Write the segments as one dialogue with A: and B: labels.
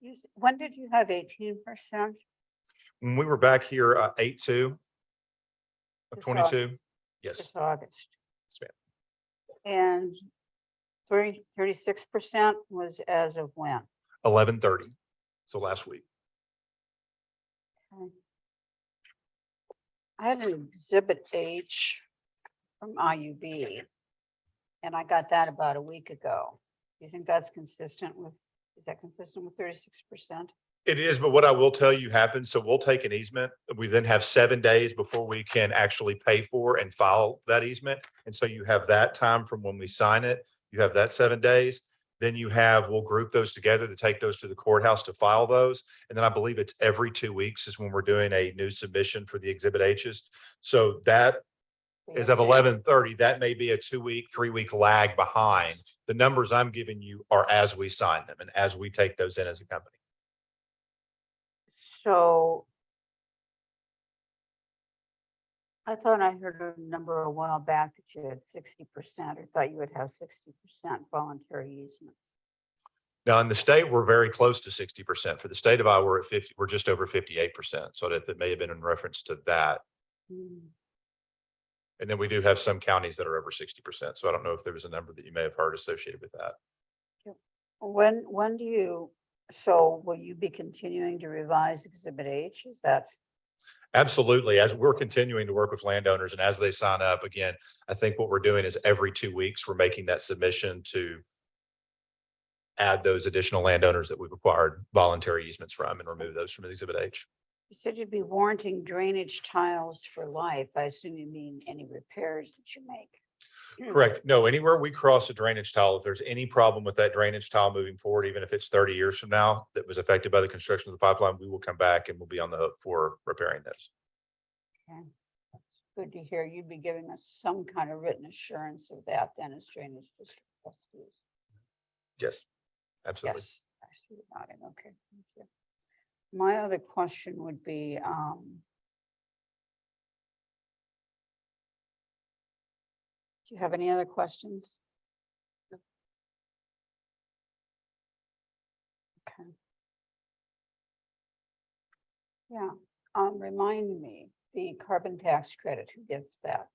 A: You s- When did you have eighteen percent?
B: When we were back here, uh, eight two. Uh,
A: This August.
B: Twenty-two, yes,
A: It's August.
B: Yes,
A: And thirty, thirty-six percent was as of when?
B: eleven thirty, so last week.
A: I had an exhibit H from IUB. And I got that about a week ago. Do you think that's consistent with, is that consistent with thirty-six percent?
B: It is, but what I will tell you happens, so we'll take an easement. We then have seven days before we can actually pay for and file that easement. And so you have that time from when we sign it, you have that seven days. Then you have, we'll group those together to take those to the courthouse to file those. And then I believe it's every two weeks is when we're doing a new submission for the exhibit H's. So that is of eleven thirty, that may be a two-week, three-week lag behind. The numbers I'm giving you are as we sign them and as we take those in as a company.
A: So I thought I heard a number a while back that you had sixty percent, or thought you would have sixty percent voluntary easements.
B: Now, in the state, we're very close to sixty percent. For the state of Iowa, we're at fifty, we're just over fifty-eight percent. So that, that may have been in reference to that. And then we do have some counties that are over sixty percent. So I don't know if there was a number that you may have heard associated with that.
A: When, when do you, so will you be continuing to revise Exhibit H? Is that,
B: Absolutely. As we're continuing to work with landowners and as they sign up, again, I think what we're doing is every two weeks, we're making that submission to add those additional landowners that we've acquired voluntary easements from and remove those from Exhibit H.
A: you said you'd be warranting drainage tiles for life. I assume you mean any repairs that you make.
B: Correct. No, anywhere we cross a drainage tile, if there's any problem with that drainage tile moving forward, even if it's thirty years from now, that was affected by the construction of the pipeline, we will come back and we'll be on the hook for repairing those.
A: Good to hear. You'd be giving us some kind of written assurance of that then as drainage district trustees.
B: Yes, absolutely.
A: Yes, I see the nodding. Okay, thank you. My other question would be, um, do you have any other questions? Okay. Yeah, um, remind me, the carbon tax credit, who gets that?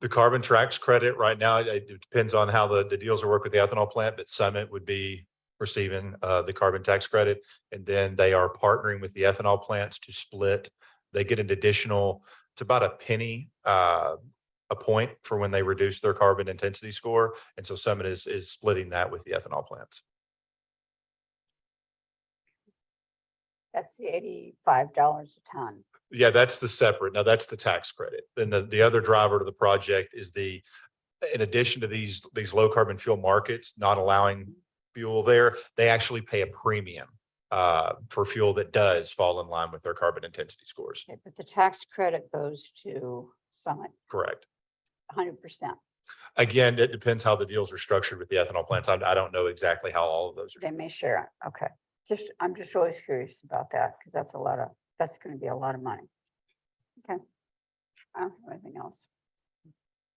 B: The carbon tracks credit right now, it- it depends on how the, the deals are worked with the ethanol plant, but Summit would be receiving uh, the carbon tax credit. And then they are partnering with the ethanol plants to split. They get an additional, it's about a penny uh, a point for when they reduce their carbon intensity score. And so Summit is, is splitting that with the ethanol plants.
A: That's the eighty-five dollars a ton.
B: Yeah, that's the separate. Now that's the tax credit. Then the, the other driver to the project is the, in addition to these, these low carbon fuel markets not allowing fuel there, they actually pay a premium uh, for fuel that does fall in line with their carbon intensity scores.
A: Okay, But the tax credit goes to Summit,
B: Correct.
A: hundred percent.
B: Again, it depends how the deals are structured with the ethanol plants. I, I don't know exactly how all of those are.
A: They may share it. Okay. Just, I'm just always curious about that because that's a lot of, that's going to be a lot of money. Okay. I don't have anything else.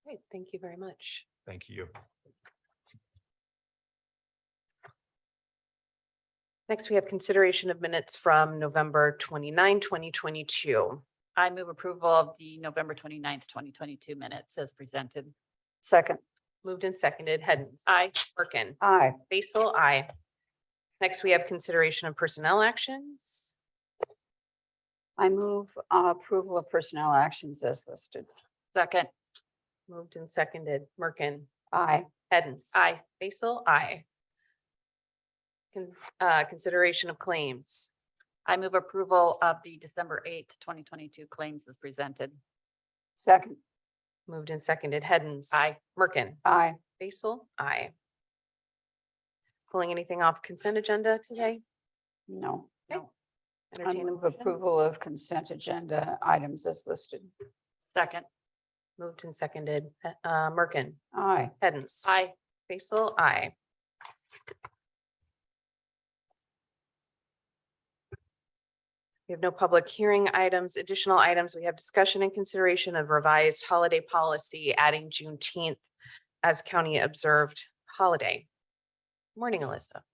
C: Great, thank you very much.
B: Thank you.
C: Next, we have consideration of minutes from November 29, 2022.
D: I move approval of the November 29th, twenty-two minutes as presented.
A: Second,
C: Moved and seconded, Hens.
D: Aye.
C: Merkin.
A: aye,
C: Basil, aye. Next, we have consideration of personnel actions.
A: I move uh, approval of personnel actions as listed.
D: Second,
C: Moved and seconded, Merkin.
A: Aye,
C: Hens.
D: aye.
C: Basil, aye. Con- uh, Consideration of claims.
D: I move approval of the December eighth, twenty twenty-two claims as presented.
A: second,
C: Moved and seconded, Hens.
D: Aye.
C: Merkin.
A: aye,
C: Basil, aye. Pulling anything off consent agenda today?
A: no.
C: Okay.
A: no. I
C: Entertain a
A: move
C: motion.
A: approval of consent agenda items as listed.
D: Second,
C: Moved and seconded. He- uh, Merkin,
A: Aye,
C: Hens.
D: aye.
C: Basil, aye. We have no public hearing items, additional items. We have discussion and consideration of revised holiday policy, adding Juneteenth as county observed holiday. Morning, Alyssa.